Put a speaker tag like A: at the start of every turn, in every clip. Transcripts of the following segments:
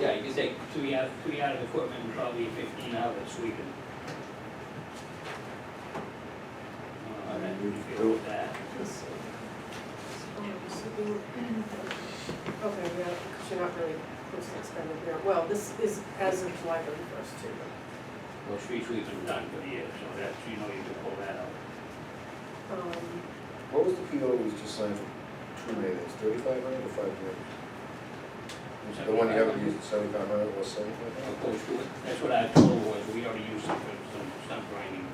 A: Yeah, you can take two yard, two yard of equipment, and probably fifteen out of it sweeping. All right, you feel with that?
B: Okay, yeah, because you're not really posting expended here. Well, this is as of July thirty-first too.
A: Well, street sweeping done for the year, so that's, you know, you can pull that out.
B: but, Um,
C: What was the PO we just signed for two millions, thirty-five hundred or five million? The one you haven't used, seventy-five hundred or seventy-five
A: Of
C: hundred?
A: course, that's what I told was, we already used some, some stump grinding.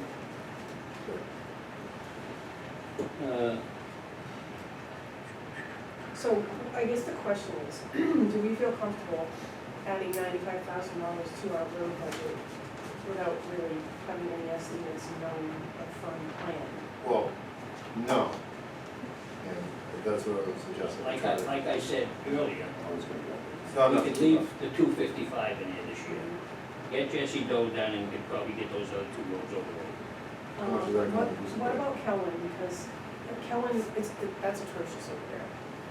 A: Uh,
B: so I guess the question is, do we feel comfortable adding ninety-five thousand dollars to our road budget without really having any estimates and knowing a firm plan?
C: Well, no. And that's what I was suggesting.
A: Like I, like I said earlier,
C: It's not
A: we
C: enough.
A: could leave the two fifty-five in here this year. Get Jesse Doe done and could probably get those other two roads over there.
B: Um,
C: How much is that
B: What,
C: gonna be?
B: what about Kellen, because Kellen, is- it's, that's atrocious over there.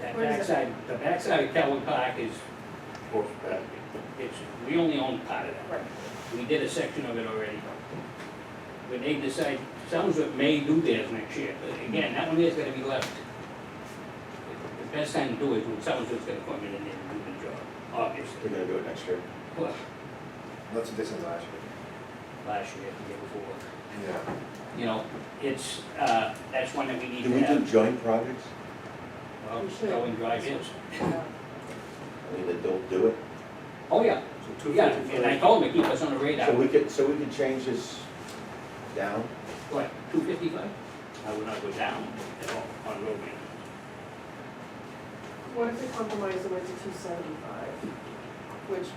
A: That
B: Where is it?
A: backside, the backside of Calvin Park is, uh,
C: Horse back.
A: it's, we only own part of that.
B: Right.
A: We did a section of it already. But they decide, Soundsworth may do theirs next year, but again, that one there's gonna be left. The best time to do it, when Soundsworth's gonna come in and do the job,
D: We're
A: obviously.
D: gonna do it next year.
A: Well,
C: That's a decent last year.
A: Last year, the year before.
C: Yeah.
A: you know, it's, uh, that's one that we need
D: Do
A: to
D: we do
A: have.
D: joint projects?
A: Well, Go and drive in.
B: Yeah.
D: I mean, that don't do it.
A: Oh, yeah,
C: So
A: yeah, and I told him to keep us on the radar.
D: So we could, so we could change this down?
A: What, two fifty-five? I would not go down at all on road maintenance.
B: What if we compromise and went to two seventy-five, which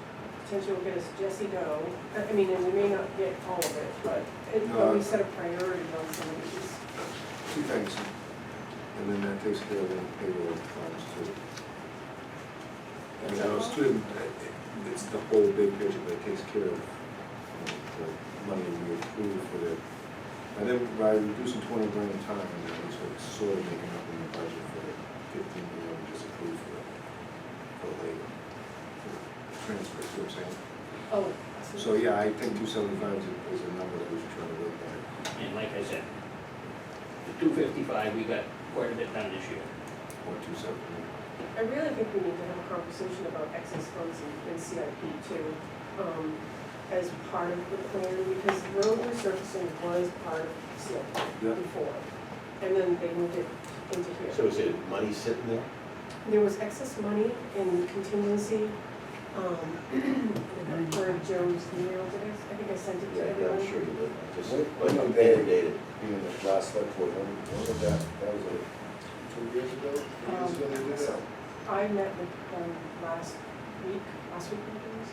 B: potentially will get us Jesse Doe, I I mean, and we may not get all of it, but it, but we
C: No.
B: set a priority on some of these.
C: Two things. And then that takes care of the payroll funds too. I mean, I was student, it's the whole big picture, but it takes care of you know, the money we approve for the, and then by reducing twenty grand in time, and then it's like sort of making up in the budget for the fifteen million we just approved for, for labor. for Transfer, see what I'm saying?
B: Oh.
C: So, yeah, I think two seventy-five is a- is a number that we should try to look at.
A: And like I said, the two fifty-five, we got quite a bit done this year.
C: Or two seventy.
B: I really think we need to have a conversation about excess funds and- and CIP too, um, as part of the plan, because road resurfacing was part of CIP
C: Yeah.
B: before. And then they moved it into here.
D: So is it money sitting there?
B: There was excess money in contingency, um, for Joe's email, did I, I think I sent it to everyone.
D: I'm sure you did. I Just,
C: What-
D: but
C: what
D: you
C: about
D: dated,
C: that?
D: dated.
C: Being the last select board, when, when was that, that was like two years ago, three years ago they did that?
B: I met with them last week, last week, I think it was.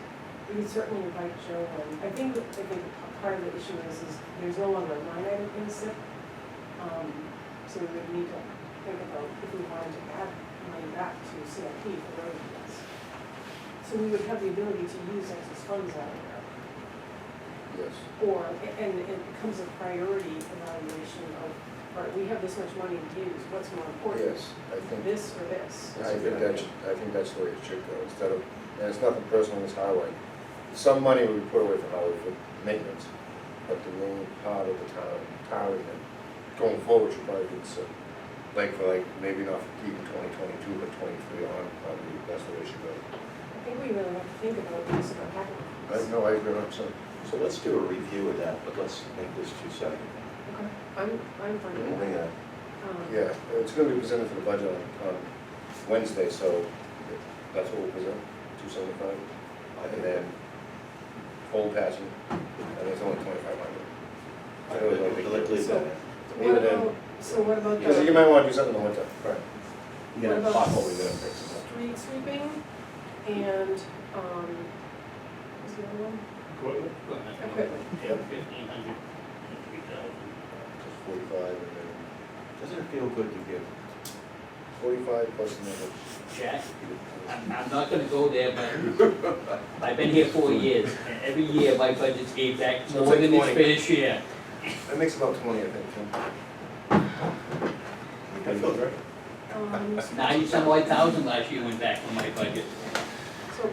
B: We could certainly invite Joe in. I think, I think p- part of the issue is, is there's no longer a line item in SIP. Um, so we would need to think about if we wanted to add money back to CIP for road maintenance. So we would have the ability to use excess funds out of there.
C: Yes.
B: Or, and it becomes a priority evaluation of, all right, we have this much money to use, what's more important?
C: Yes, I think,
B: This or this?
C: I think that, should- I think that's the way it should go, instead of, and it's nothing personal, it's highway. Some money would be put away for highway for maintenance, but the main part of the town, town, and going forward should probably be, so, like, for like, maybe not for keeping twenty twenty-two, but twenty-three on, probably, that's the way it should go.
B: I think we really have to think about use of our capital.
C: I, no, I agree, I'm sorry.
D: So let's do a review of that, but let's make this two seventy.
B: Okay, I'm, I'm fine with
D: Bring
B: that.
D: a
B: Um,
C: Yeah, it's gonna be presented for the budget on, on Wednesday, so that's what we'll present, two seventy-five. And then full passion, and it's only twenty-five hundred.
D: I would, let's leave that. in.
C: leave
B: What
C: it in.
B: about, so what about
C: Because you
B: the
C: might wanna do something in the winter.
D: Right.
B: What
D: You gotta
B: about-
D: talk what we gotta fix.
B: street sweeping and, um, what's the other one?
A: Equipment?
B: Equipment.
A: Fifteen hundred, three thousand.
C: Just forty-five, and then
D: Doesn't it feel good to give?
C: forty-five plus another.
A: Jack, I'm, I'm not gonna go there, but I've been here four years, and every year my budget's gave back
C: So
A: more
C: it's like
A: than its
C: 20.
A: fair share.
C: That makes about twenty, I think, Tim.
D: I feel great.
B: Um,
A: Ninety-some odd thousand last year went back from my budget.